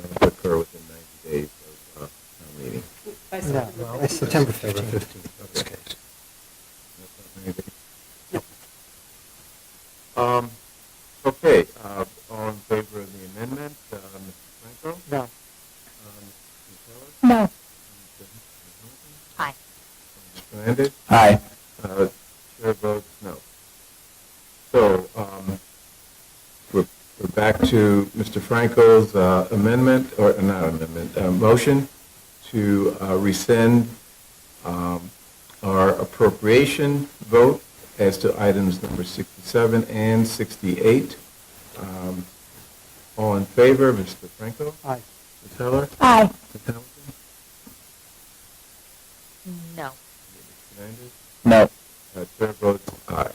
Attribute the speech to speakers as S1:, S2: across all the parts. S1: uh,
S2: July
S3: No,
S2: seventh.
S3: no, it's September 15th.
S1: Okay.
S2: No.
S1: Um, okay, uh, all in favor of the amendment, uh, Mr. Franco?
S3: No,
S1: Um, Mr. Keller?
S4: No.
S2: Aye.
S1: Mr. Hernandez?
S5: Aye.
S1: Uh, Chair votes no. So, um, we're, we're back to Mr. Franco's uh, amendment, or not amendment, uh, motion to uh, rescind um, our appropriation vote as to items number 67 and 68. Um, All in favor, Mr. Franco?
S3: aye.
S1: Ms. Heller?
S4: Aye.
S1: Ms. Hamilton?
S2: No.
S1: Mr. Hernandez?
S5: No.
S1: Uh, Chair votes aye.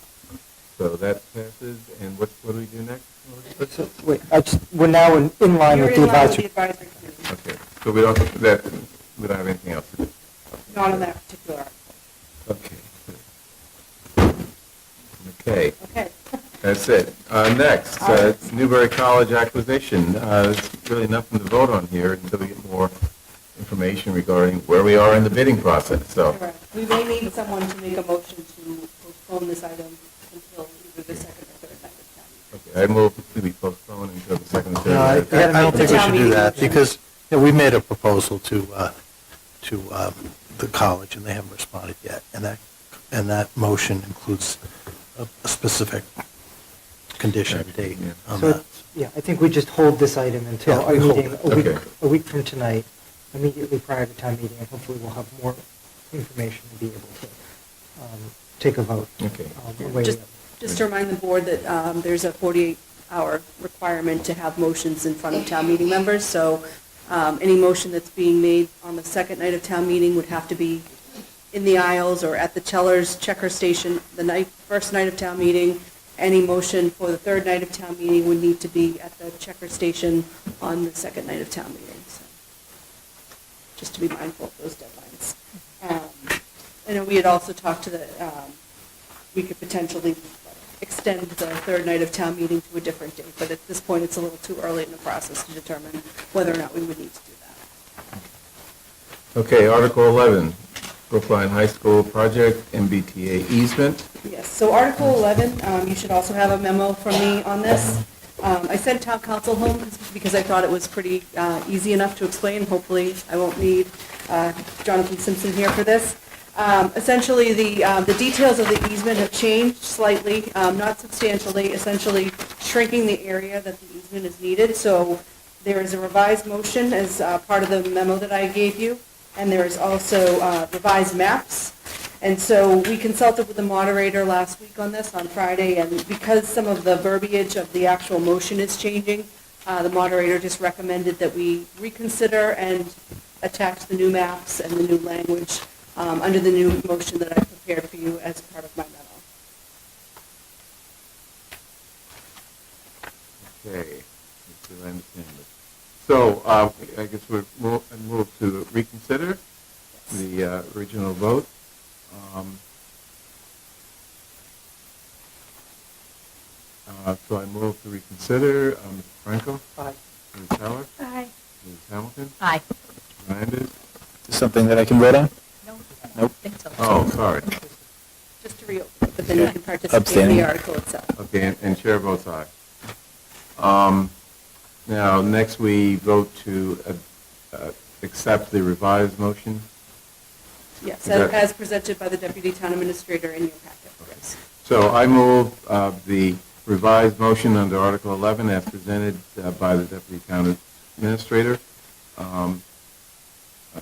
S1: So that passes, and what, what do we do next?
S3: So, wait, I just- We're now in in line
S2: You're
S3: with the
S2: in line with the
S3: advisory.
S2: advisory committee,
S1: Okay, so we don't, that, we don't have anything else to do.
S2: not on that particular article.
S1: Okay. Okay,
S2: Okay.
S1: that's it. Uh, next,
S2: All
S1: uh,
S2: right.
S1: Newberry College acquisition. Uh, there's really nothing to vote on here until we get more information regarding where we are in the bidding process, so.
S2: Correct. We may need someone to make a motion to postpone this item until either the second or third night of town.
S1: Okay, I move to be postponed until the
S6: Uh,
S1: second,
S3: No, I I
S1: third.
S3: don't think we should do that, because
S6: Yeah, we made a proposal to, uh, to um, the college, and they haven't responded yet. And that, and that motion includes a a specific condition and date
S1: Yeah.
S6: on
S3: So,
S6: that.
S3: yeah, I think we just hold this item until
S6: Oh, Yeah,
S3: our
S6: we hold
S3: meeting,
S6: it.
S3: a week,
S1: Okay.
S3: a week from tonight, immediately prior to town meeting, and hopefully we'll have more information to be able to um, take a vote.
S1: Okay.
S3: um, away
S2: Just,
S3: with.
S2: just to remind the board that um, there's a 48-hour requirement to have motions in front of town meeting members, so um, any motion that's being made on the second night of town meeting would have to be in the aisles or at the Chellers Checker Station the night, first night of town meeting. Any motion for the third night of town meeting would need to be at the Checker Station on the second night of town meeting, so just to be mindful of those deadlines. Um, And then we had also talked to the, um, we could potentially extend the third night of town meeting to a different date, but at this point, it's a little too early in the process to determine whether or not we would need to do that.
S1: Okay, Article 11, Brookline High School Project MBTA easement.
S2: Yes, so Article 11, um, you should also have a memo from me on this. Um, I sent town council home because I thought it was pretty uh, easy enough to explain. Hopefully, I won't need uh, Jonathan Simpson here for this. Um, Essentially, the, uh, the details of the easement have changed slightly, um, not substantially, essentially shrinking the area that the easement is needed. So there is a revised motion as uh, part of the memo that I gave you, and there is also uh, revised maps. And so we consulted with the moderator last week on this, on Friday, and because some of the verbiage of the actual motion is changing, uh, the moderator just recommended that we reconsider and attach the new maps and the new language um, under the new motion that I prepared for you as part of my memo.
S1: Okay, Mr. Landis-Campbell. So uh, I guess we're mo- I move to reconsider the uh, original vote. Um, uh, So I move to reconsider. Um, Mr. Franco?
S3: Aye.
S1: Ms. Heller?
S4: Aye.
S1: Ms. Hamilton?
S4: Aye.
S1: Mr. Landis?
S5: Is this something that I can vote on?
S4: No.
S5: Nope.
S4: Think so.
S1: Oh, sorry.
S2: Just to reopen, but then you can participate in
S5: Abstaining.
S2: the article itself.
S1: Okay, and- and chair votes aye. Um, Now, next we vote to uh, uh, accept the revised motion.
S2: Yes,
S1: Is that-
S2: as as presented by the deputy town administrator in your packet, yes.
S1: So I move uh, the revised motion under Article 11 as presented uh, by the Deputy Town Administrator. Um, uh,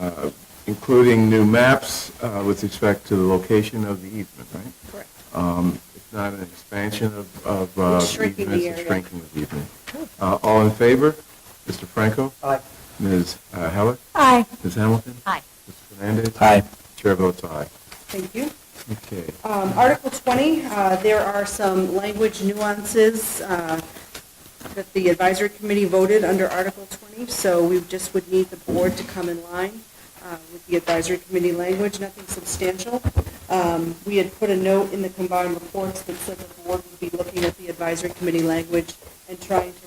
S1: uh, Including new maps uh, with respect to the location of the easement, right?
S2: Correct.
S1: Um, It's not an expansion of, of uh,
S2: It's shrinking the
S1: easements, it's
S2: area.
S1: shrinking of easement. Uh, All in favor? Mr. Franco?
S3: Aye.
S1: Ms. uh, Heller?
S4: Aye.
S1: Ms. Hamilton?
S4: Aye.
S1: Mr. Fernandez?
S5: Aye.
S1: Chair votes aye.
S2: Thank you.
S1: Okay.
S2: Um, Article 20, uh, there are some language nuances uh, that the advisory committee voted under Article 20, so we just would need the board to come in line uh, with the advisory committee language, nothing substantial. Um, We had put a note in the combined reports that said the board would be looking at the advisory committee language and trying to